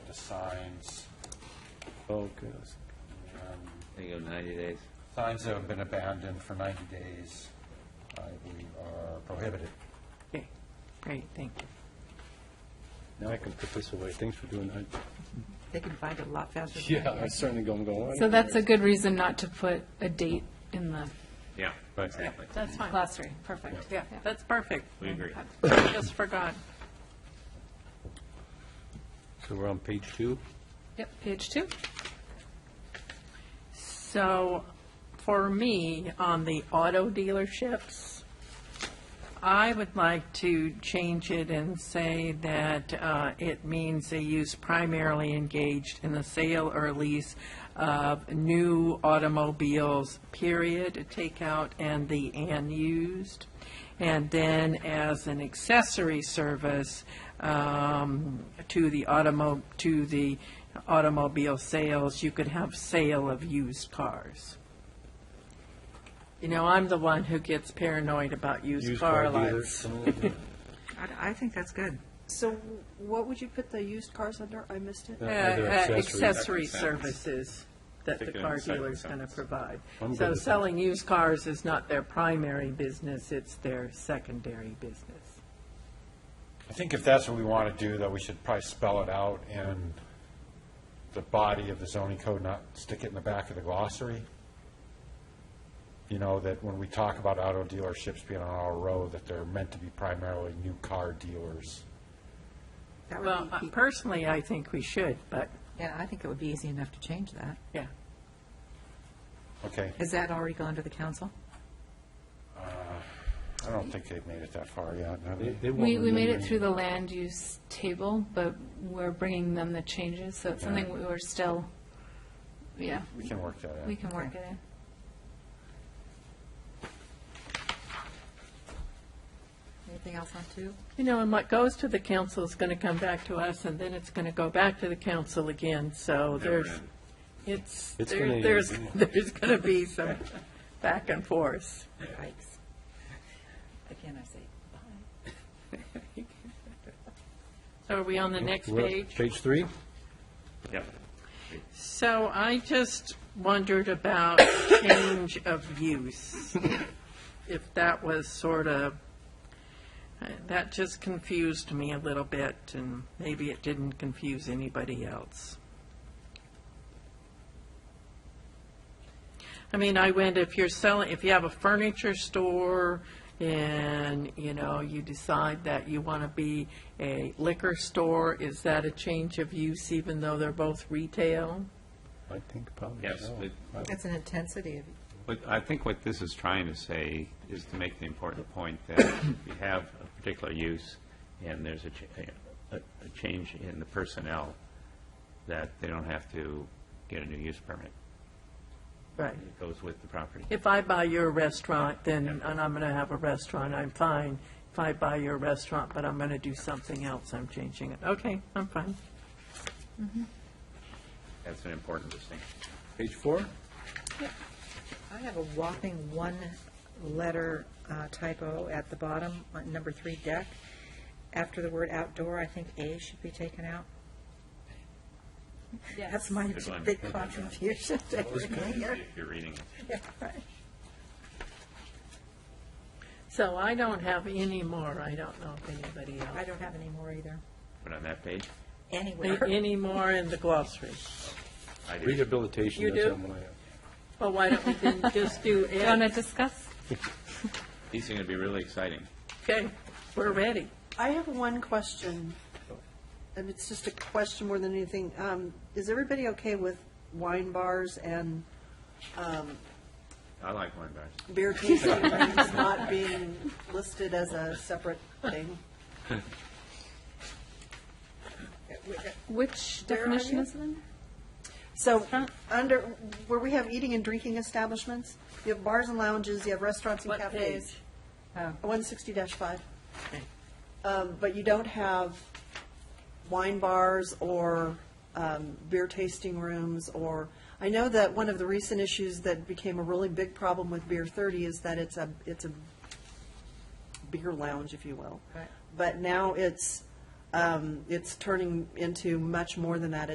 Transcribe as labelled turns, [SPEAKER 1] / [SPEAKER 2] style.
[SPEAKER 1] the signs.
[SPEAKER 2] Okay.
[SPEAKER 3] There you go, 90 days.
[SPEAKER 1] Signs that have been abandoned for 90 days, I believe, are prohibited.
[SPEAKER 4] Okay, great, thank you.
[SPEAKER 2] Now I can put this away. Thanks for doing that.
[SPEAKER 4] They can find it a lot faster. than-
[SPEAKER 2] Yeah, I certainly going, going.
[SPEAKER 5] So that's a good reason not to put a date in the
[SPEAKER 3] Yeah,
[SPEAKER 1] Right.
[SPEAKER 3] exactly.
[SPEAKER 4] That's fine.
[SPEAKER 5] glossary. Perfect.
[SPEAKER 4] Yeah, that's perfect.
[SPEAKER 3] We agree.
[SPEAKER 4] I Just forgot.
[SPEAKER 2] So we're on page two?
[SPEAKER 5] Yep, page two.
[SPEAKER 4] So for me, on the auto dealerships, I would like to change it and say that uh, it means a use primarily engaged in the sale or lease of new automobiles, period, take out and the and used. And then as an accessory service um, to the automo, to the automobile sales, you could have sale of used cars. You know, I'm the one who gets paranoid about used car lots.
[SPEAKER 6] I, I think that's good. So what would you put the used cars under? I missed it.
[SPEAKER 4] Uh,
[SPEAKER 2] Other
[SPEAKER 4] uh,
[SPEAKER 2] accessories.
[SPEAKER 4] Accessory
[SPEAKER 3] Second sentence.
[SPEAKER 4] services that the
[SPEAKER 3] Take it in
[SPEAKER 4] car
[SPEAKER 3] the second
[SPEAKER 4] dealer's going to
[SPEAKER 3] sentence.
[SPEAKER 4] provide.
[SPEAKER 2] I'm good
[SPEAKER 4] So
[SPEAKER 2] with that.
[SPEAKER 4] selling used cars is not their primary business, it's their secondary business.
[SPEAKER 1] I think if that's what we want to do, though, we should probably spell it out in the body of the zoning code, not stick it in the back of the glossary. You know, that when we talk about auto dealerships being on our road, that they're meant to be primarily new car dealers.
[SPEAKER 6] That would
[SPEAKER 4] Well,
[SPEAKER 6] be-
[SPEAKER 4] uh, personally, I think we should, but,
[SPEAKER 6] Yeah, I think it would be easy enough to change that.
[SPEAKER 4] yeah.
[SPEAKER 1] Okay,
[SPEAKER 6] Has that already gone to the council?
[SPEAKER 1] I don't think they've made it that far yet. have they?
[SPEAKER 5] We, we made it through the land use table, but we're bringing them the changes, so it's something we were still, yeah,
[SPEAKER 1] We can work that
[SPEAKER 5] we
[SPEAKER 1] out.
[SPEAKER 5] can work it in.
[SPEAKER 6] Anything else on two?
[SPEAKER 4] You know, and what goes to the council is going to come back to us, and then it's going to go back to the council again, so there's,
[SPEAKER 3] end.
[SPEAKER 4] it's,
[SPEAKER 2] It's
[SPEAKER 4] there-
[SPEAKER 2] gonna-
[SPEAKER 4] there's, there's going to be some back and forth.
[SPEAKER 6] Yikes. Again, I say,
[SPEAKER 4] So are we on the next
[SPEAKER 2] We're-
[SPEAKER 4] page?
[SPEAKER 2] Page three?
[SPEAKER 3] Yep.
[SPEAKER 4] So I just wondered about change of use, if that was sort of, uh, that just confused me a little bit, and maybe it didn't confuse anybody else. I mean, I went, if you're selling, if you have a furniture store and, you know, you decide that you want to be a liquor store, is that a change of use even though they're both retail?
[SPEAKER 2] I think probably
[SPEAKER 3] Yes,
[SPEAKER 2] so.
[SPEAKER 3] but
[SPEAKER 6] that's an intensity of,
[SPEAKER 3] But I think what this is trying to say is to make the important point that if you have a particular use and there's a, cha- a, a change in the personnel, that they don't have to get a new use permit.
[SPEAKER 4] Right.
[SPEAKER 3] It goes with the property.
[SPEAKER 4] If I buy your restaurant, then, and I'm going to have a restaurant, I'm fine. If I buy your restaurant, but I'm going to do something else, I'm changing it. Okay, I'm fine.
[SPEAKER 3] That's an important distinction.
[SPEAKER 2] Page four?
[SPEAKER 6] I have a whopping one-letter uh, typo at the bottom, on number three deck. After the word outdoor, I think A should be taken out. That's my
[SPEAKER 3] Good one.
[SPEAKER 6] big contribution. to everything here.
[SPEAKER 3] If you're reading it.
[SPEAKER 6] Yeah, right.
[SPEAKER 4] So I don't have any more, I don't know if anybody
[SPEAKER 6] I
[SPEAKER 4] else.
[SPEAKER 6] don't have any more either,
[SPEAKER 3] But on that page,
[SPEAKER 6] anywhere.
[SPEAKER 4] Any more in the glossary?
[SPEAKER 3] I did.
[SPEAKER 2] Rehabilitation.
[SPEAKER 4] You
[SPEAKER 2] that's
[SPEAKER 4] do?
[SPEAKER 2] what I'm gonna have.
[SPEAKER 4] Well, why don't we then just do
[SPEAKER 5] Do you want to
[SPEAKER 4] it?
[SPEAKER 5] discuss?
[SPEAKER 3] These are going to be really exciting.
[SPEAKER 4] Okay, we're ready.
[SPEAKER 7] I have one question, and it's just a question more than anything. Um, Is everybody okay with wine bars and
[SPEAKER 3] I like wine bars.
[SPEAKER 7] beer tasting rooms not being listed as a separate thing?
[SPEAKER 5] Which
[SPEAKER 7] Where are
[SPEAKER 5] definition
[SPEAKER 7] you?
[SPEAKER 5] is it in?
[SPEAKER 7] So, Uh, under, where we have eating and drinking establishments, you have bars and lounges, you have restaurants and
[SPEAKER 4] What
[SPEAKER 7] cafes.
[SPEAKER 4] page?
[SPEAKER 7] One sixty five. Um, but you don't have wine bars or, um, beer tasting rooms or, I know that one of the recent issues that became a really big problem with Beer Thirty is that it's a, it's a beer lounge, if you will.
[SPEAKER 6] Right.
[SPEAKER 7] But now it's um, it's turning into much more than that.